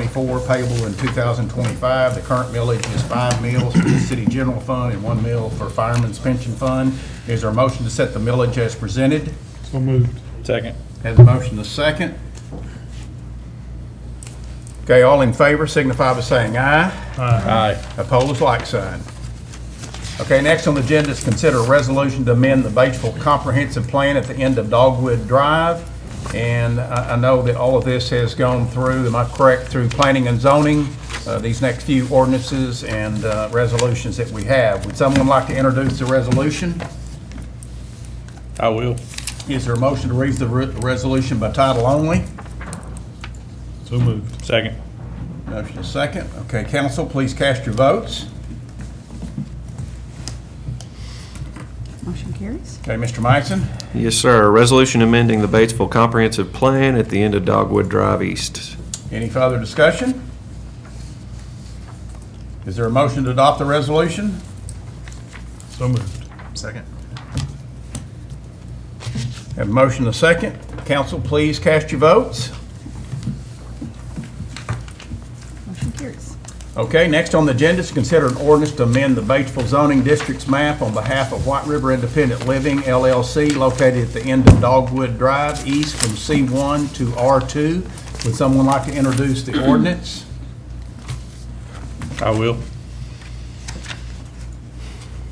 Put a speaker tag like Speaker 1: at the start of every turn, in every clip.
Speaker 1: 24 payable in 2025. The current millage is five mills for the city general fund and one mill for fireman's pension fund. Is there a motion to set the millage as presented?
Speaker 2: So moved.
Speaker 3: Second.
Speaker 1: Has a motion to second. Okay, all in favor signify by saying aye.
Speaker 3: Aye.
Speaker 1: Opposed, like sign. Okay, next on the agenda is consider a resolution to amend the Batesville Comprehensive Plan at the end of Dogwood Drive. And I I know that all of this has gone through, am I correct, through planning and zoning, uh, these next few ordinances and uh, resolutions that we have. Would someone like to introduce the resolution?
Speaker 3: I will.
Speaker 1: Is there a motion to read the re- resolution by title only?
Speaker 2: So moved.
Speaker 3: Second.
Speaker 1: Motion is second. Okay, council, please cast your votes.
Speaker 4: Motion carries.
Speaker 1: Okay, Mr. Meissen?
Speaker 5: Yes, sir. Resolution amending the Batesville Comprehensive Plan at the end of Dogwood Drive East.
Speaker 1: Any further discussion? Is there a motion to adopt the resolution?
Speaker 2: So moved.
Speaker 1: Second. Have a motion to second. Council, please cast your votes.
Speaker 4: Motion carries.
Speaker 1: Okay, next on the agenda is consider an ordinance to amend the Batesville zoning district's map on behalf of White River Independent Living LLC located at the end of Dogwood Drive east from C1 to R2. Would someone like to introduce the ordinance?
Speaker 3: I will.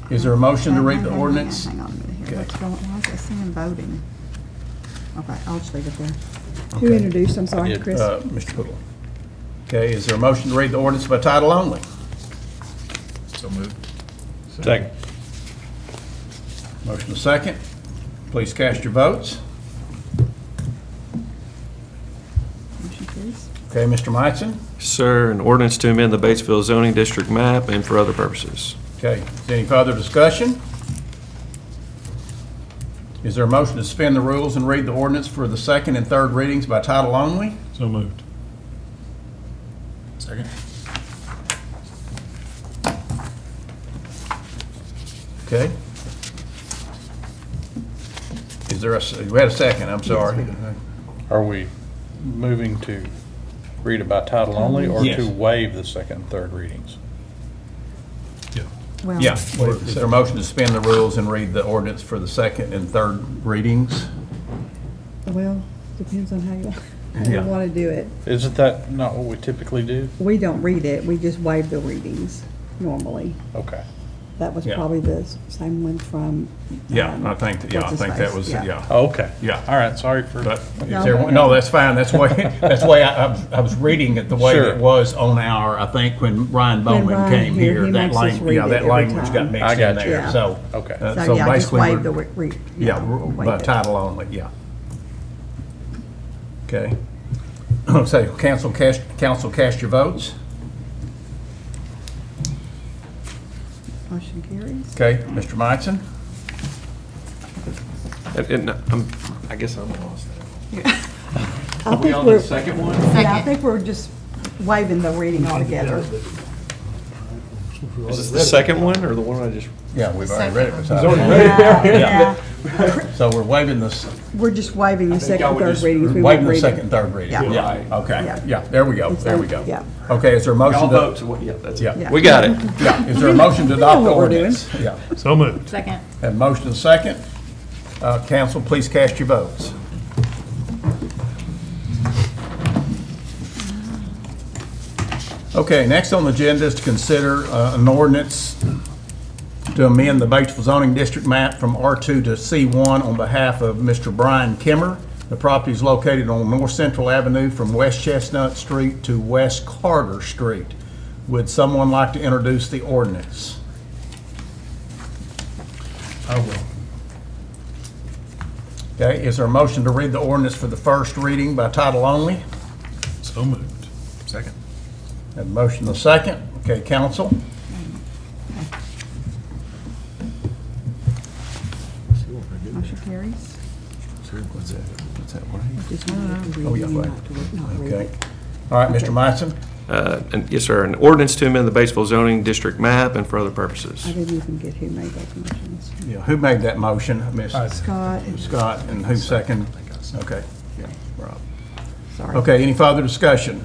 Speaker 1: Is there a motion to read the
Speaker 4: Hang on, hang on,
Speaker 1: ordinance?
Speaker 4: Hang on a minute
Speaker 1: Okay.
Speaker 4: here. What's going, why is it saying voting? Okay, I'll just leave it there. Who
Speaker 1: Okay.
Speaker 4: introduced, I'm sorry, Chris?
Speaker 1: Uh, Mr. Poodle. Okay, is there a motion to read the ordinance by title only?
Speaker 2: So moved.
Speaker 3: Second.
Speaker 1: Motion to second. Please cast your votes.
Speaker 4: Motion carries.
Speaker 1: Okay, Mr. Meissen?
Speaker 5: Sir, an ordinance to amend the Batesville zoning district map and for other purposes.
Speaker 1: Okay, is there any further discussion? Is there a motion to suspend the rules and read the ordinance for the second and third readings by title only?
Speaker 2: So moved.
Speaker 3: Second.
Speaker 1: Okay. Is there a, s- we had a second, I'm sorry.
Speaker 3: Are we moving to read it by title only or
Speaker 1: Yes.
Speaker 3: to waive the second and third readings?
Speaker 2: Yeah.
Speaker 4: Well,
Speaker 1: Yeah, is there a motion to suspend the rules and read the ordinance for the second and third readings?
Speaker 4: Well, depends on how you, how you
Speaker 1: Yeah.
Speaker 4: want to do it.
Speaker 3: Isn't that not what we typically do?
Speaker 4: We don't read it, we just waive the readings normally.
Speaker 3: Okay.
Speaker 4: That was
Speaker 1: Yeah.
Speaker 4: probably the s- same one from.
Speaker 1: Yeah, uh,
Speaker 4: um,
Speaker 1: I think, that- yeah, I think that was,
Speaker 4: What's-his-face, yeah.
Speaker 1: yeah.
Speaker 3: Okay.
Speaker 1: Yeah.
Speaker 3: All right, sorry for,
Speaker 1: But is
Speaker 4: No.
Speaker 1: there, no, that's fine, that's why, that's why I, I was- I was reading it the way
Speaker 3: Sure.
Speaker 1: it was on our, I think, when Ryan Bowman
Speaker 4: Ryan
Speaker 1: came
Speaker 4: here,
Speaker 1: here.
Speaker 4: he
Speaker 1: That
Speaker 4: makes us
Speaker 1: language, yeah,
Speaker 4: read it
Speaker 1: that
Speaker 4: every
Speaker 1: language
Speaker 4: time.
Speaker 1: got
Speaker 3: I
Speaker 1: mixed in
Speaker 3: got you.
Speaker 1: there,
Speaker 4: Yeah.
Speaker 1: so.
Speaker 3: Okay.
Speaker 1: uh,
Speaker 4: So, yeah, I just
Speaker 1: basically
Speaker 4: waive
Speaker 1: we're-
Speaker 4: the re- read.
Speaker 1: Yeah,
Speaker 4: we'll waive
Speaker 1: by
Speaker 4: it.
Speaker 1: title only, yeah. Okay. So, council cast, council cast your votes.
Speaker 4: Motion carries.
Speaker 1: Okay, Mr. Meissen?
Speaker 5: And- And I'm, I guess I'm lost.
Speaker 4: I think we're,
Speaker 5: second one?
Speaker 4: yeah, I think we're just waiving the reading altogether.
Speaker 5: Is this the second one or the one I just?
Speaker 1: Yeah, we've already read it. by title only.
Speaker 4: Yeah, yeah.
Speaker 1: So we're waiving this,
Speaker 4: We're just waiving the second, and third readings. We won't
Speaker 1: waiving the
Speaker 4: read it.
Speaker 1: second and third reading.
Speaker 4: Yeah.
Speaker 1: Yeah, okay,
Speaker 4: Yeah.
Speaker 1: yeah, there we go,
Speaker 4: It's
Speaker 1: there we
Speaker 4: a-
Speaker 1: go.
Speaker 4: yeah.
Speaker 1: Okay, is there a motion to?
Speaker 5: yeah, that's
Speaker 1: Yeah.
Speaker 4: Yeah.
Speaker 5: We got it.
Speaker 1: Yeah, is there a motion to adopt the
Speaker 4: what we're doing.
Speaker 1: ordinance? Yeah,
Speaker 2: So moved.
Speaker 6: Second.
Speaker 1: have a motion and a second. Uh, Council, please cast your votes. Okay, next on the agenda is to consider uh, an ordinance to amend the Batesville zoning district map from R2 to C1 on behalf of Mr. Brian Kimmer. The property is located on North Central Avenue from West Chestnut Street to West Carter Street. Would someone like to introduce the ordinance?
Speaker 2: I will.
Speaker 1: Okay, is there a motion to read the ordinance for the first reading by title only?
Speaker 2: So moved. Second.
Speaker 1: Have a motion the second. Okay, council?
Speaker 4: Motion carries.
Speaker 5: What's that? What's that one?
Speaker 4: Just wanted to read
Speaker 1: Oh, yeah,
Speaker 4: it, not
Speaker 1: right.
Speaker 4: to re- not read
Speaker 1: Okay.
Speaker 4: it.
Speaker 1: All right, Mr. Meissen?
Speaker 5: Uh, and- Yes, sir. An ordinance to amend the Batesville zoning district map and for other purposes.
Speaker 4: I didn't even get who made those motions.
Speaker 1: Yeah, who made that motion? Miss
Speaker 4: Scott, and-
Speaker 1: Scott, and who seconded? Okay. Yeah, Rob.
Speaker 4: sorry.
Speaker 1: Okay, any further discussion?